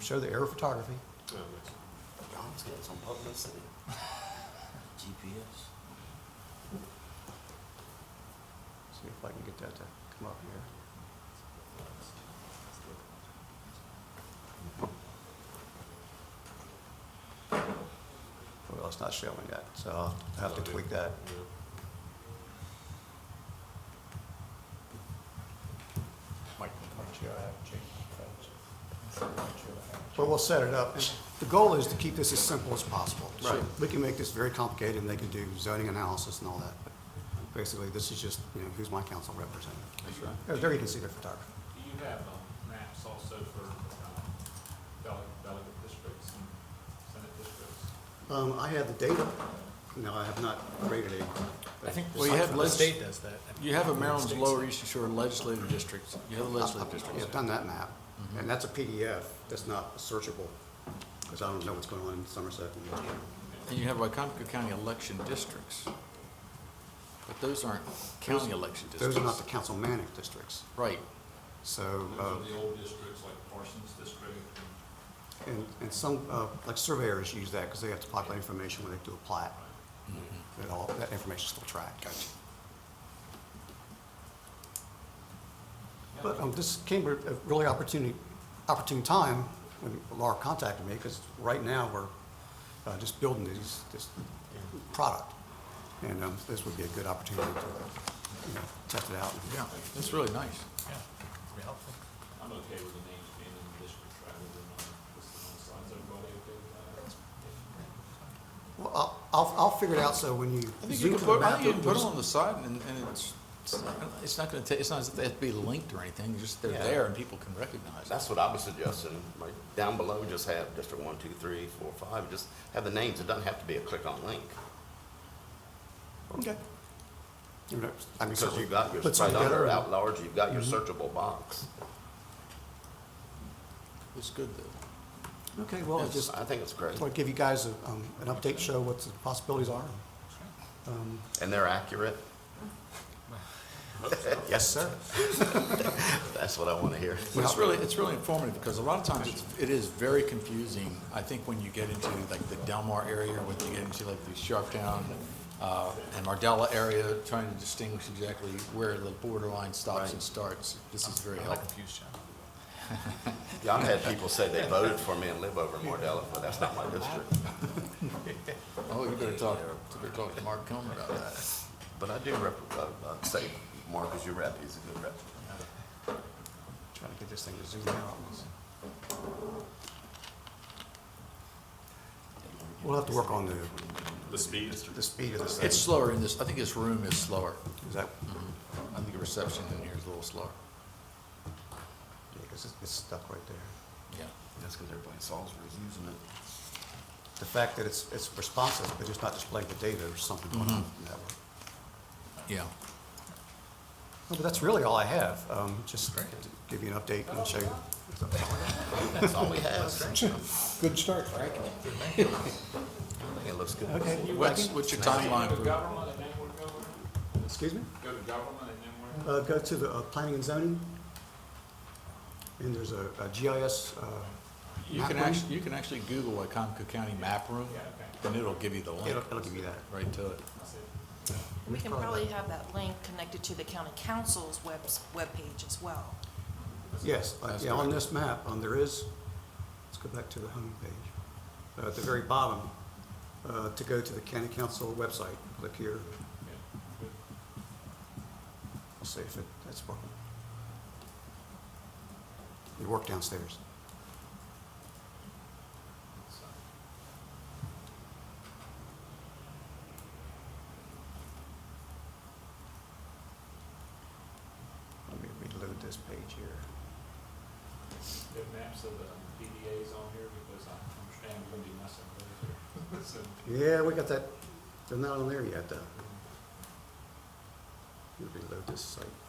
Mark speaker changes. Speaker 1: show the aerial photography.
Speaker 2: John's got some publicity. GPS.
Speaker 1: See if I can get that to come up here. Well, it's not showing that, so I'll have to tweak that.
Speaker 3: Mike, Mike, you have Jason's
Speaker 1: But we'll set it up. The goal is to keep this as simple as possible. So
Speaker 2: Right.
Speaker 1: We can make this very complicated, and they can do zoning analysis and all that. But Basically, this is just, you know, who's my council representative. Oh,
Speaker 2: That's right.
Speaker 1: They're- They're gonna see their photography.
Speaker 4: Do you have um, maps also for um, dele- delegate districts and senate districts?
Speaker 1: Um, I have the data. No, I have not created a.
Speaker 5: I think
Speaker 3: Well, you have
Speaker 5: the
Speaker 3: legis-
Speaker 5: state does that.
Speaker 3: You have a Maryland's Lower Eastern Shore legislative districts. You have the legislative
Speaker 1: Yeah,
Speaker 3: districts.
Speaker 1: I've done that map,
Speaker 5: Mm-hmm.
Speaker 1: and that's a PDF, that's not searchable, because I don't know what's going on in Somerset.
Speaker 3: And you have Wycomico County election districts. But those aren't county election
Speaker 1: Those are not the
Speaker 3: districts.
Speaker 1: councilmanic districts,
Speaker 3: Right.
Speaker 1: so,
Speaker 4: Those are
Speaker 1: uh,
Speaker 4: the old districts like Parsons District and
Speaker 1: and, and some, uh, like surveyors use that, because they have to populate information when they do a plat. That all, that information's still tracked. Gotcha. But um, this came at a really opportunity, opportune time when Laura contacted me, because right now, we're uh, just building these, this product. And um, this would be a good opportunity to you know, test it out.
Speaker 3: Yeah, that's really nice.
Speaker 4: I'm okay with the names being in the districts rather than on listed on the signs. Everybody okay with that?
Speaker 1: Well, I'll- I'll, I'll figure it out, so when you
Speaker 3: I think you
Speaker 1: zoom
Speaker 3: can
Speaker 1: to the
Speaker 3: put, I
Speaker 1: map,
Speaker 3: think you
Speaker 1: it'll
Speaker 3: can put them
Speaker 1: just-
Speaker 3: on the side and, and it's, it's not- it's not gonna ta, it's not as if they have to be linked or anything, just they're
Speaker 2: Yeah.
Speaker 3: there and people can recognize it.
Speaker 2: That's what I was suggesting, like, down below, just have District one, two, three, four, five, just have the names, it doesn't have to be a click-on link.
Speaker 1: Okay. You know, I mean,
Speaker 2: Because
Speaker 1: so
Speaker 2: you've got your,
Speaker 1: put
Speaker 2: right
Speaker 1: something
Speaker 2: under,
Speaker 1: together.
Speaker 2: out large, you've got your searchable box.
Speaker 3: It's good though.
Speaker 1: Okay, well, I just,
Speaker 2: I think it's great,
Speaker 1: just want to give you guys a, um, an update, show what the possibilities are. Um,
Speaker 2: and they're accurate,
Speaker 1: Yes, sir.
Speaker 2: that's what I wanna hear.
Speaker 3: But it's
Speaker 1: Yeah.
Speaker 3: really, it's really informative because a lot of times it's, it is very confusing. I think when you get into like the Delmar area, when you get into like the Sharptown, uh, and Mardella area, trying to distinguish exactly where the borderline stops and starts. This is very helpful.
Speaker 5: Confused, John.
Speaker 2: Yeah, I've had people say they voted for me and live over in Mardella, but that's not my district.
Speaker 3: Oh, you better talk, you better talk to Mark Comer about that.
Speaker 2: But I do rep, uh, uh, say, Mark is your rep, he's a good rep.
Speaker 1: Trying to get this thing to zoom out. We'll have to work on the,
Speaker 4: The speed?
Speaker 1: the speed of this thing.
Speaker 3: It's slower in this, I think this room is slower.
Speaker 1: Is that,
Speaker 3: I think the reception in here is a little slower.
Speaker 1: because it's stuck right there.
Speaker 3: Yeah.
Speaker 2: That's because everybody in Salisbury's using it.
Speaker 1: The fact that it's, it's responsive, but it's not displaying the data or something going on in that way.
Speaker 3: Yeah.
Speaker 1: No, But that's really all I have. Um, just to give you an update and show you.
Speaker 2: That's all we have.
Speaker 1: Good start, Frank.
Speaker 2: I think it looks good.
Speaker 1: Okay.
Speaker 3: What's, what's your timeline
Speaker 4: Go to
Speaker 3: for,
Speaker 4: government and then we're going,
Speaker 1: Excuse me?
Speaker 4: go to government and then we're.
Speaker 1: Uh, go to the, uh, planning and zoning. And there's a, a GIS, uh,
Speaker 3: you
Speaker 1: Map
Speaker 3: can
Speaker 1: room?
Speaker 3: actually, you can actually Google Wycomico County map room, and it'll give you the link
Speaker 1: it'll, it'll give you that.
Speaker 3: right to it.
Speaker 6: We can probably have that link connected to the county council's webs, webpage as well.
Speaker 1: Yes, uh,
Speaker 3: That's
Speaker 1: yeah, on
Speaker 3: correct.
Speaker 1: this map, um, there is, let's go back to the home page. Uh, at the very bottom, uh, to go to the county council website, click here. I'll see if it, that's working. You work downstairs. Let me reload this page here.
Speaker 4: There are maps of the PDAs on here because I understand we're gonna be messing with those. So,
Speaker 1: Yeah, we got that, they're not on there yet, though. Let me Reload this site.